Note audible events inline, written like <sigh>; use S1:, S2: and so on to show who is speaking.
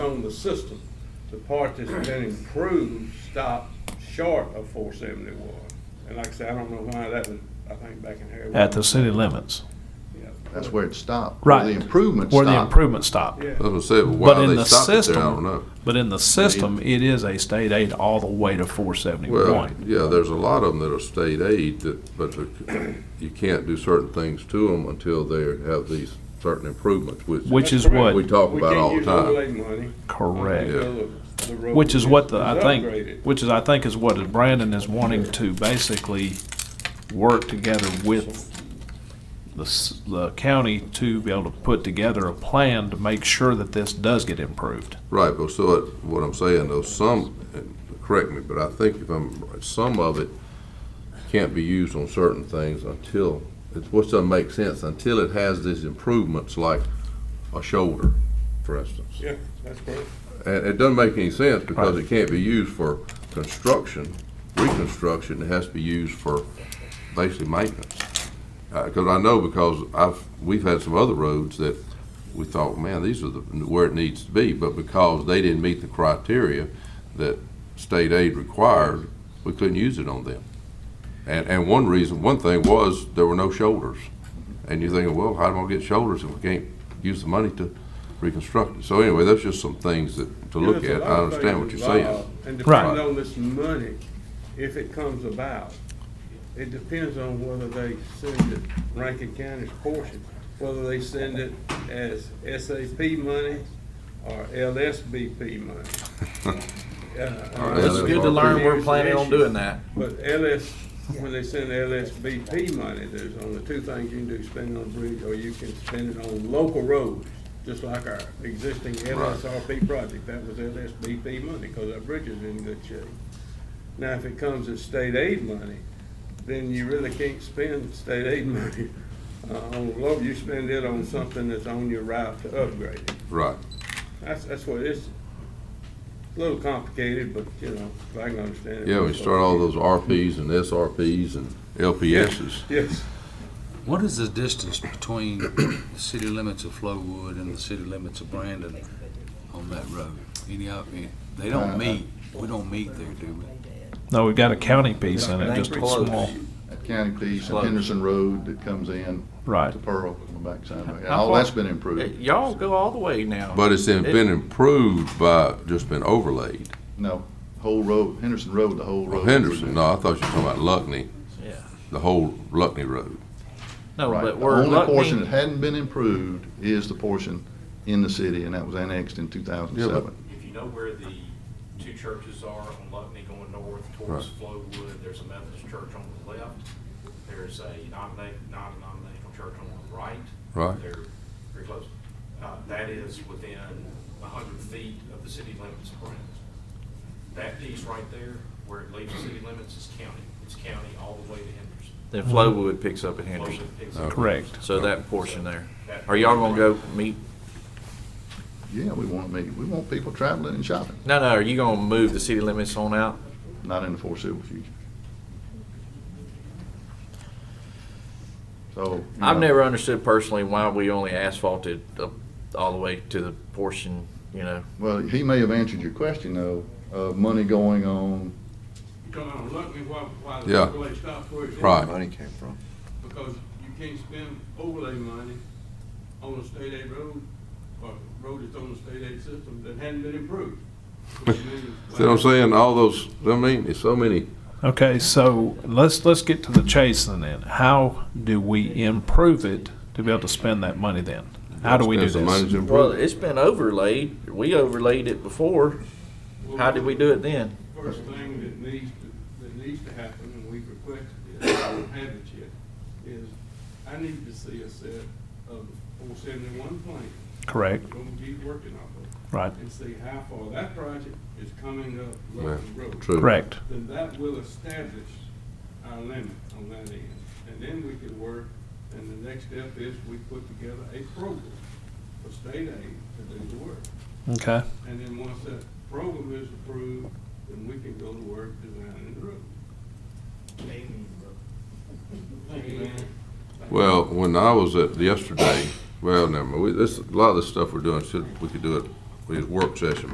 S1: on the system. The part that's been improved stopped short of four seventy-one. And like I said, I don't know why that was, I think back in here.
S2: at the city limits.
S1: Yeah.
S3: That's where it stopped.
S2: Right.
S3: Where the improvement
S2: Where
S3: stopped.
S2: the improvement stopped.
S1: Yeah.
S4: That's what I said, but
S2: But
S4: why
S2: in
S4: they
S2: the
S4: stopped it there, I
S2: system-
S4: don't know.
S2: But in the system, it is a state aid all the way to four
S4: Well,
S2: seventy-one.
S4: yeah, there's a lot of them that are state aid that, but the- you can't do certain things to them until they have these certain improvements, which.
S2: Which is
S1: That's
S2: what,
S1: correct.
S4: We talk about all the time.
S1: We can't use overlay money.
S2: correct,
S1: until the- the road
S2: which is what the, I
S1: upgraded.
S2: think, which is, I think is what Brandon is wanting to basically work together with the, s- the county to be able to put together a plan to make sure that this does get improved.
S4: Right, but so what- what I'm saying though, some, and correct me, but I think if I'm, right, some of it can't be used on certain things until, it's what doesn't make sense, until it has these improvements like a shoulder, for instance.
S1: Yeah, that's correct.
S4: And it doesn't make any sense because it can't be used for construction, reconstruction, it has to be used for basically maintenance. Uh 'cause cause I know because I've, we've had some other roads that we thought, man, these are the, where it needs to be, but because they didn't meet the criteria that state aid required, we couldn't use it on them. And, and one reason, one thing was, there were no shoulders. And you're thinking, well, how do I get shoulders if we can't use the money to reconstruct it? So anyway, that's just some things that, to
S1: Yeah,
S4: look
S1: there's a lot
S4: at. I
S1: of
S4: understand what you're
S1: things
S4: saying.
S1: involved. And
S2: Right.
S1: depending on this money, if it comes about, it depends on whether they send it Rankin County's portion, whether they send it as SAP money or LSBP
S4: <laughs>
S1: money.
S4: All
S1: Uh,
S4: right,
S5: It's
S4: that's
S5: good to
S4: all
S5: learn
S4: good.
S5: we're planning on doing that.
S1: But LS, when they send LSBP money, there's only two things you can do, spend it on a bridge, or you can spend it on local roads, just like our existing LSRP project, that was LSBP money, because our bridge is in good shape. Now, if it comes as state aid money, then you really can't spend state aid <laughs> money uh, on local, you spend it on something that's on your route to upgrade it.
S4: Right.
S1: That's, that's what it's, a little complicated, but, you know, if I can understand it.
S4: Yeah, we start all those RPs and SRPs and LPSs.
S1: Yes.
S6: What is the distance between the city limits of Flowood and the city limits of Brandon on that road? Any of, any- they don't meet, we don't meet there, do we?
S2: No, we've got a county piece in it, just a
S5: Close.
S2: small,
S3: That county piece, and
S5: Close.
S3: Henderson Road that comes in
S2: right.
S3: to Pearl on the backside. of it.
S5: How
S3: All
S5: far-
S3: that's been improved.
S5: Y'all go all the way now.
S4: But it's in-
S5: It-
S4: been improved by, just been overlaid.
S3: No, whole road, Henderson Road, the whole road.
S4: Henderson, no, I thought you were talking about Luckney,
S5: Yeah.
S4: the whole Luckney Road.
S5: No,
S3: Right.
S5: but
S3: The
S5: we're
S3: only portion that
S5: looking,
S3: hadn't been improved is the portion in the city, and that was annexed in two thousand
S4: Yeah, but-
S3: seven.
S7: If you know where the two churches are on Luckney going north towards Flowood, there's a Methodist church on the left. There's a nominate, non-denominational church on the right.
S4: Right.
S7: They're very close. Uh, that is within a hundred feet of the city limits of Brandon. That piece right there, where it leaves the city limits, is county. It's county all the way to Henderson.
S5: then Flowood picks up at Henderson.
S7: Flowood picks up-
S2: Correct.
S5: So that portion there. Are y'all gonna go meet,
S3: Yeah, we want to meet, we want people traveling and shopping,
S5: no, no, are you gonna move the city limits on out?
S3: not in the foreseeable future. So. you
S5: I've
S3: know,
S5: never understood personally why we only asphalted up all the way to the portion, you know,
S3: Well, he may have answered your question though, of money going on
S1: Come on, look me why, why the
S4: Yeah.
S1: overlay stopped where it is.
S4: Right.
S1: Because you can't spend overlay money on a state aid road, or road that's on the state aid system that hadn't been improved.
S4: <laughs>
S1: Which means-
S4: See what I'm saying? All those, I mean, there's so many
S2: Okay, so let's, let's get to the chase then. then. How do we improve it to be able to spend that money then? How do we do
S4: Spend some money
S2: this?
S4: to
S5: Well,
S4: improve it.
S5: it's been overlaid. We overlaid it before. How did we do it then?
S1: First thing that needs, to- that needs to happen, and we've requested it, I don't have it yet, is I need to see a set of four seventy-one plan.
S2: Correct,
S1: We're gonna be working off of.
S2: right,
S1: and see how far that project is coming up
S4: Yeah,
S1: Loveland Road.
S4: True.
S2: correct.
S1: Then that will establish our limit on that end. And then we can work, and the next step is we put together a program for state aid to do the work.
S2: Okay,
S1: And then once that program is approved, then we can go to work designing the road.
S4: Well, when I was at yesterday, well, never mind. We, this, a lot of this stuff we're doing, should, we could do it, we had a work session